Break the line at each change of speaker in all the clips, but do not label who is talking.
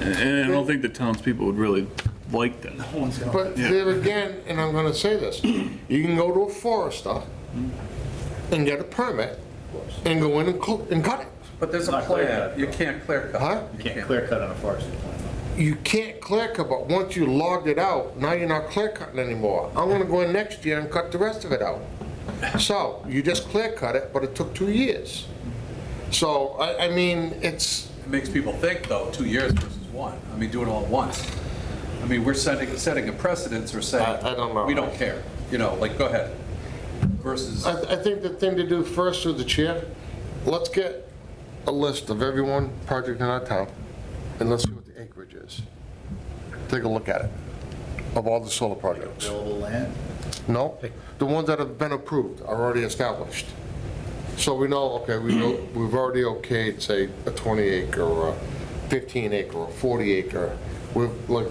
And I don't think the townspeople would really like that.
But there again, and I'm gonna say this, you can go to a forester and get a permit and go in and cl- and cut it.
But there's a
Not clear
plan,
cut,
you can't clear cut.
Huh?
You can't clear cut on a forestry plan.
You can't clear cut, but once you logged it out, now you're not clear cutting anymore. I'm gonna go in next year and cut the rest of it out. So you just clear cut it, but it took two years. So, I, I mean, it's,
It makes people think, though, two years versus one. I mean, do it all at once. I mean, we're setting, setting a precedence or saying.
I- I don't know.
We don't care, you know, like, go ahead, versus.
I, I think the thing to do first through the chair, let's get a list of everyone, project in our town, and let's see what the acreage is. Take a look at it, of all the solar projects.
Available land?
No, the ones that have been approved are already established. So we know, okay, we know, we've already okayed, say, a 20 acre or a 15 acre or 40 acre. We've, like,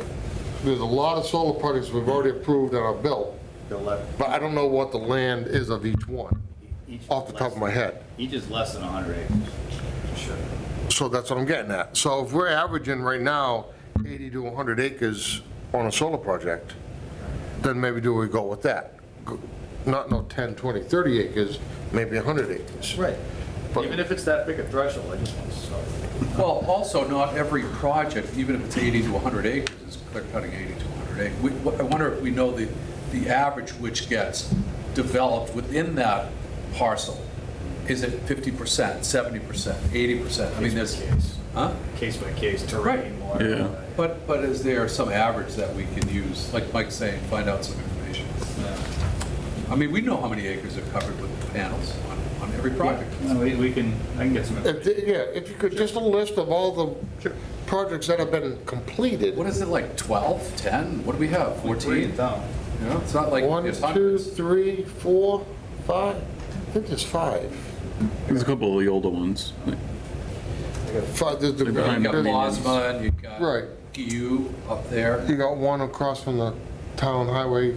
there's a lot of solar projects we've already approved and are built,
They'll let-
but I don't know what the land is of each one,
each
off the top of my
less-
head.
Each is less than 100 acres. Sure.
So that's what I'm getting at. So if we're averaging right now 80 to 100 acres on a solar project, then maybe do we go with that? Go- Not no 10, 20, 30 acres, maybe 100 acres.
Right.
But-
Even if it's that big a threshold, I just want to start.
Well, also, not every project, even if it's 80 to 100 acres, is clear cutting 80 to 100 acres. We- I wonder if we know the, the average which gets developed within that parcel. Is it 50%, 70%, 80%? I mean,
Case
there's,
by case.
huh?
Case by case, terrain, water.
Yeah.
uh,
But, but is there some average that we can use, like Mike's saying, find out some information? I mean, we know how many acres are covered with panels on, on every project.
No, We we can, I can get some.
If, the- yeah, if you could, just a list of all the projects that have been completed.
What is it, like 12, 10? What do we have, 14?
down.
You know, it's not like
One,
there's
two,
hundreds.
three, four, five? I think there's five.
There's a couple of the older ones.
Five, there's the-
They're
You
behind
got
the
there's-
laws.
Bosman, you got
Right.
GU up there.
you got one across from the town highway,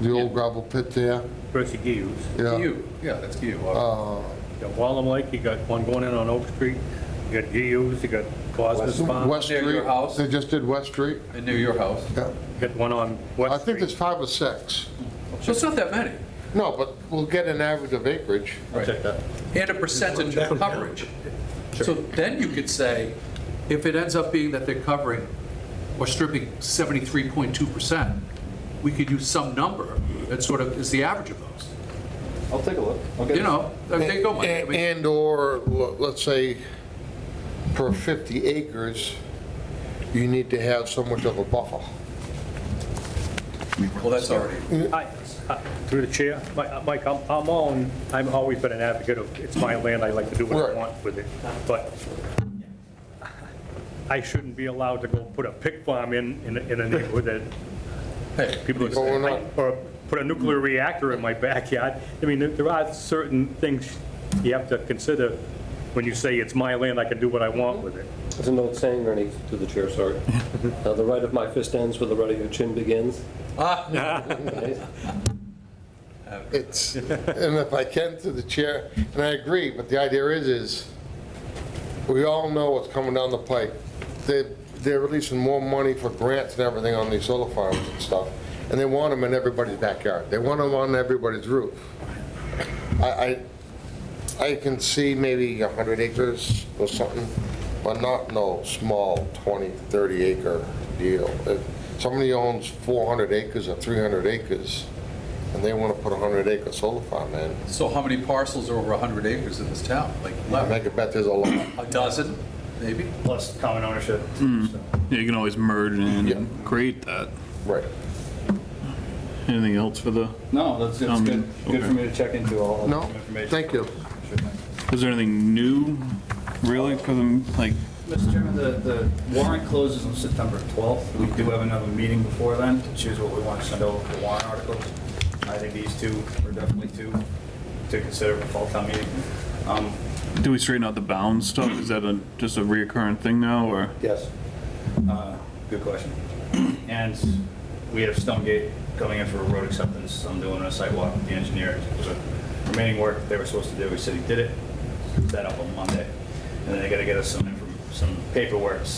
the old gravel pit there.
Percy Hughes.
Yeah. Uh.
GU, yeah, that's uh, GU.
You got Wallem Lake, you got one going in on Oak Street, you got Hughes, you got Bosma's Farm,
West
Near your
Street,
house?
they just did West Street.
And near your house.
Yeah.
you got one on
I
West
think
Street.
there's five or six.
So it's not that many.
No, but we'll get an average of acreage.
I'll check that.
and a percentage of coverage. So then you could say, if it ends up being that they're covering or stripping 73.2%, we could use some number that sort of is the average of those.
I'll take a look. I'll get
You
it.
know, they go, Mike. I
And-
mean,
And/or, l- let's say, per 50 acres, you need to have so much of a buffer.
well, that's already,
I- I- Uh, Through the chair, Mi- uh, Mike, I'm I'm on, I've always been an advocate of, it's my land, I like to do what I
Right.
want with it, but I shouldn't be allowed to go put a pig farm in, in a- in a neighborhood that
hey,
people,
But we're not-
or put a nuclear reactor in my backyard. I mean, there- there are certain things you have to consider when you say it's my land, I can do what I want with it.
There's an old saying, Ernie, to the chair, sorry. Now, the right of my fist ends where the right of your chin begins.
It's, and if I can, to the chair, and I agree, but the idea is, is we all know what's coming down the pike. They, they're releasing more money for grants and everything on these solar farms and stuff, and they want them in everybody's backyard. They want them on everybody's roof. I, I, I can see maybe 100 acres or something, but not no small 20, 30 acre deal. If somebody owns 400 acres or 300 acres, and they want to put a 100 acre solar farm in,
so how many parcels are over 100 acres in this town? Like
I
11,
make a bet there's a lot.
a dozen, maybe?
Plus common ownership. so.
Yeah, You can always merge
Yeah.
and create that.
Right.
Anything else for the,
No, that's, that's
Um,
good. Good for
okay.
me to check into all all
No,
the information.
thank you.
Sure thing.
is there anything new really for them, like,
Mr. Chairman, the, the warrant closes on September 12th. We do have another meeting before then to choose what we want to send over for warrant articles. I think these two are definitely two to consider for fall town meeting. Um,
do we straighten out the bound stuff? Is that a, just a reoccurring thing now, or?
Yes. Uh, Good question. And we have Stonegate coming in for a road acceptance. I'm doing a sidewalk with the engineer. So Remaining work they were supposed to do, we said he did it. That up on Monday. And then they gotta get us some, inform- some paperwork